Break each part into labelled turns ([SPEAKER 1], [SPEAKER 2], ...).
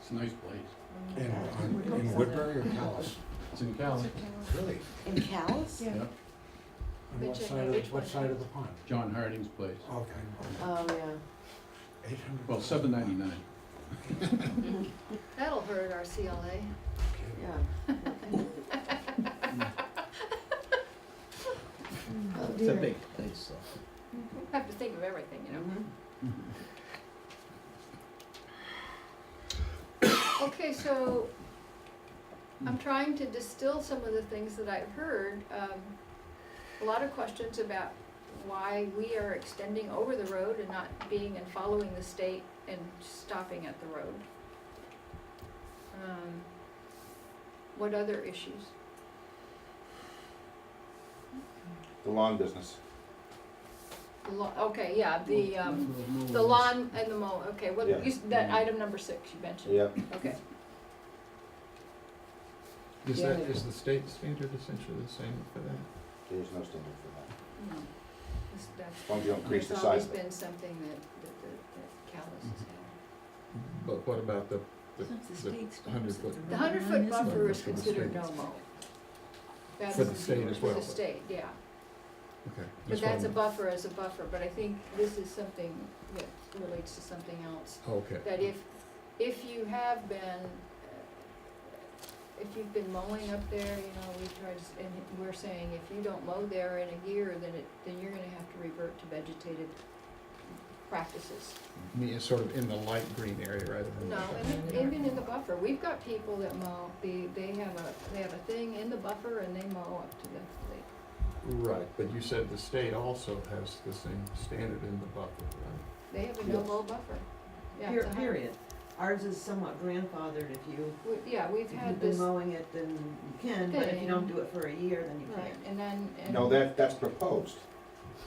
[SPEAKER 1] It's a nice place.
[SPEAKER 2] In, on- in Woodbury or Callis?
[SPEAKER 1] It's in Cali.
[SPEAKER 2] Really?
[SPEAKER 3] In Callis?
[SPEAKER 4] Yeah.
[SPEAKER 1] Yep,
[SPEAKER 2] On what side of, what side of the pond?
[SPEAKER 1] John Harding's place.
[SPEAKER 2] Okay.
[SPEAKER 3] Oh, yeah.
[SPEAKER 2] Eight hundred.
[SPEAKER 1] Well, seven ninety-nine.
[SPEAKER 4] That'll hurt our CLA.
[SPEAKER 3] Yeah. Oh,
[SPEAKER 5] It's a
[SPEAKER 3] dear.
[SPEAKER 5] big place, though.
[SPEAKER 4] We have
[SPEAKER 6] Mm-hmm.
[SPEAKER 4] to think of everything, you know?
[SPEAKER 3] Mhm.
[SPEAKER 4] Okay, so
[SPEAKER 6] Hmm.
[SPEAKER 4] I'm trying to distill some of the things that I've heard. Um, a lot of questions about why we are extending over the road and not being and following the state and stopping at the road. Um, what other issues?
[SPEAKER 6] The lawn business.
[SPEAKER 4] The law, okay, yeah, the, um, the lawn and the mow, okay, what,
[SPEAKER 6] Yeah.
[SPEAKER 4] you, s- that item number six you mentioned.
[SPEAKER 6] Yeah.
[SPEAKER 4] Okay,
[SPEAKER 7] Is
[SPEAKER 3] Yeah.
[SPEAKER 7] that, is the state standard essentially the same for that?
[SPEAKER 6] There's no standard for that.
[SPEAKER 4] no, This- that's
[SPEAKER 6] As long as you don't increase the
[SPEAKER 4] There's
[SPEAKER 6] size
[SPEAKER 4] always
[SPEAKER 6] of it.
[SPEAKER 4] been something that, that, that, that Callis has had.
[SPEAKER 7] But what about the hundred foot?
[SPEAKER 4] The hundred foot buffer is
[SPEAKER 7] For the
[SPEAKER 4] considered
[SPEAKER 7] state.
[SPEAKER 4] no mo. That's
[SPEAKER 7] Mm-hmm. For the state as well,
[SPEAKER 4] For the
[SPEAKER 7] but-
[SPEAKER 4] state, yeah,
[SPEAKER 7] Okay.
[SPEAKER 4] but
[SPEAKER 7] just one-
[SPEAKER 4] that's a buffer as a buffer, but I think this is something that relates to something else.
[SPEAKER 7] Okay.
[SPEAKER 4] That if, if you have been, uh, if you've been mowing up there, you know, we tried, s- and we're saying if you don't mow there in a year, then it, then you're gonna have to revert to vegetated practices.
[SPEAKER 7] I mean, it's sort of in the light green area rather than.
[SPEAKER 4] No, and it- even in the buffer, we've got people that mow, they, they have a, they have a thing in the buffer and they mow up to the lake.
[SPEAKER 7] Right, but you said the state also has the same standard in the buffer, right?
[SPEAKER 4] They have a no mow buffer. Yeah, it's a hundred-
[SPEAKER 3] Period. Ours is somewhat grandfathered if you,
[SPEAKER 4] we- Yeah, we've
[SPEAKER 3] if you've
[SPEAKER 4] had
[SPEAKER 3] been
[SPEAKER 4] this,
[SPEAKER 3] mowing it, then you can, but if you don't
[SPEAKER 4] Thing.
[SPEAKER 3] do it for a year, then you
[SPEAKER 4] right,
[SPEAKER 3] can't.
[SPEAKER 4] and then, and.
[SPEAKER 6] No, that, that's proposed.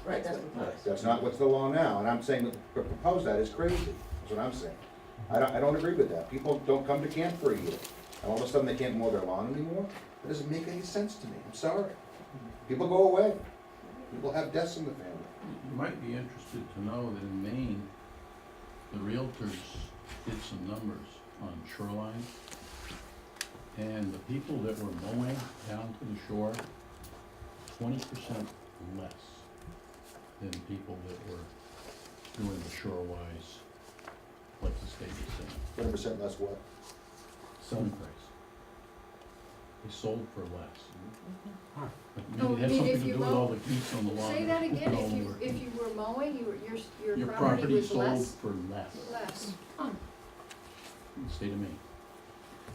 [SPEAKER 3] Right, that's proposed.
[SPEAKER 6] That's not what's the law now, and I'm saying that to propose that is crazy, That's what I'm saying. I don't, I don't agree with that. People don't come to camp for a year, and all of a sudden they can't mow their lawn anymore? That doesn't make any sense to me, I'm sorry. People go away. People have deaths in the family.
[SPEAKER 1] You might be interested to know that in Maine, the realtors did some numbers on shoreline. And the people that were mowing down to the shore, twenty percent less than people that were doing the shorewise, like the state is saying,
[SPEAKER 6] Twenty percent less what?
[SPEAKER 1] selling price. They sold for less. But
[SPEAKER 4] Oh,
[SPEAKER 1] Maybe it has
[SPEAKER 4] you mean
[SPEAKER 1] something
[SPEAKER 4] if
[SPEAKER 1] to
[SPEAKER 4] you
[SPEAKER 1] do with
[SPEAKER 4] mow-
[SPEAKER 1] all the geese on the lawn.
[SPEAKER 4] Say that again,
[SPEAKER 1] all
[SPEAKER 4] if you,
[SPEAKER 1] over.
[SPEAKER 4] if you were mowing, you were, your,
[SPEAKER 1] Your
[SPEAKER 4] your property
[SPEAKER 1] property
[SPEAKER 4] was
[SPEAKER 1] sold
[SPEAKER 4] less,
[SPEAKER 1] for less
[SPEAKER 4] less. Huh,
[SPEAKER 1] in the state of Maine.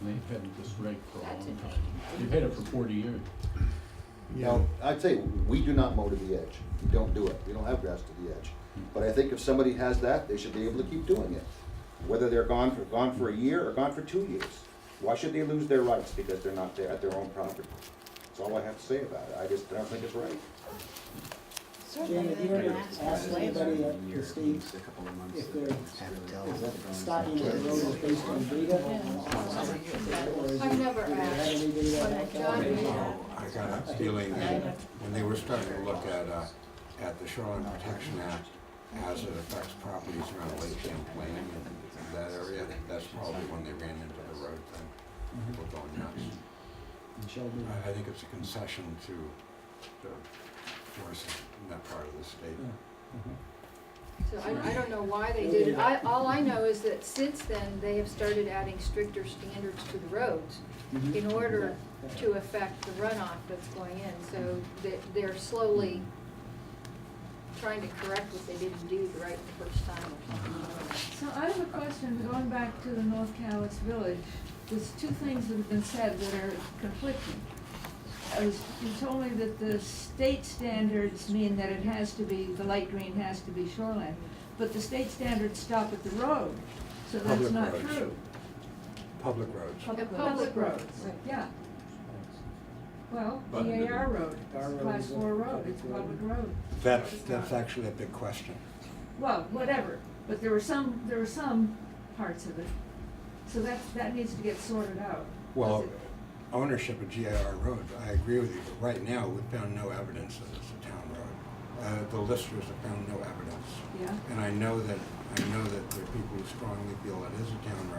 [SPEAKER 1] And they've had this reg for a long
[SPEAKER 4] That's
[SPEAKER 1] time.
[SPEAKER 4] interesting.
[SPEAKER 1] They've had it for forty years.
[SPEAKER 6] Now, I tell you, we do not mow to the edge. We don't do it. We don't have grass to the edge. But I think if somebody has that, they should be able to keep doing it. Whether they're gone for, gone for a year or gone for two years. Why should they lose their rights because they're not there at their own property? That's all I have to say about it. I just don't think it's right.
[SPEAKER 8] Jane, have you ever asked anybody at the state if they're, is that stopping at the road is based on data? Or is it-
[SPEAKER 4] I've never
[SPEAKER 8] do they have
[SPEAKER 4] asked.
[SPEAKER 8] any data
[SPEAKER 4] But
[SPEAKER 8] back
[SPEAKER 4] John,
[SPEAKER 8] there?
[SPEAKER 2] Oh, I got a feeling that when they were starting to look at, uh, at the Shoreline Protection Act as it affects properties around Lake Champlain and that area, that's probably when they ran into the road thing. People going nuts.
[SPEAKER 8] Sheldon.
[SPEAKER 7] I think it's a concession to the forces in that part of the state.
[SPEAKER 4] So I, I don't know why they did it. I, all I know is that since then, they have started adding stricter standards to the roads in order to affect the runoff that's going in. So they, they're slowly trying to correct what they didn't do the right the first time or something.
[SPEAKER 9] So I have a question, going back to the North Callis Village, there's two things that have been said that are conflicting. I was- You told me that the state standards mean that it has to be, the light green has to be shoreline, but the state standards stop at the road, so that's
[SPEAKER 7] Public
[SPEAKER 9] not
[SPEAKER 7] roads.
[SPEAKER 9] true.
[SPEAKER 7] Public roads.
[SPEAKER 4] The public roads.
[SPEAKER 9] Yeah, well,
[SPEAKER 7] But-
[SPEAKER 9] DAR road,
[SPEAKER 8] Our
[SPEAKER 9] it's a
[SPEAKER 8] road
[SPEAKER 9] class
[SPEAKER 8] is a
[SPEAKER 9] four road, it's a
[SPEAKER 8] public road.
[SPEAKER 9] public road.
[SPEAKER 2] That's, that's actually a big question.
[SPEAKER 9] well, whatever, but there were some, there were some parts of it. So that, that needs to get sorted out.
[SPEAKER 2] Well,
[SPEAKER 9] Because it-
[SPEAKER 2] ownership of GIR Road, I agree with you, but right now, we've found no evidence that it's a town road. Uh, the listers have found no evidence.
[SPEAKER 9] Yeah,
[SPEAKER 2] And I know that, I know that there are people who strongly feel it is a town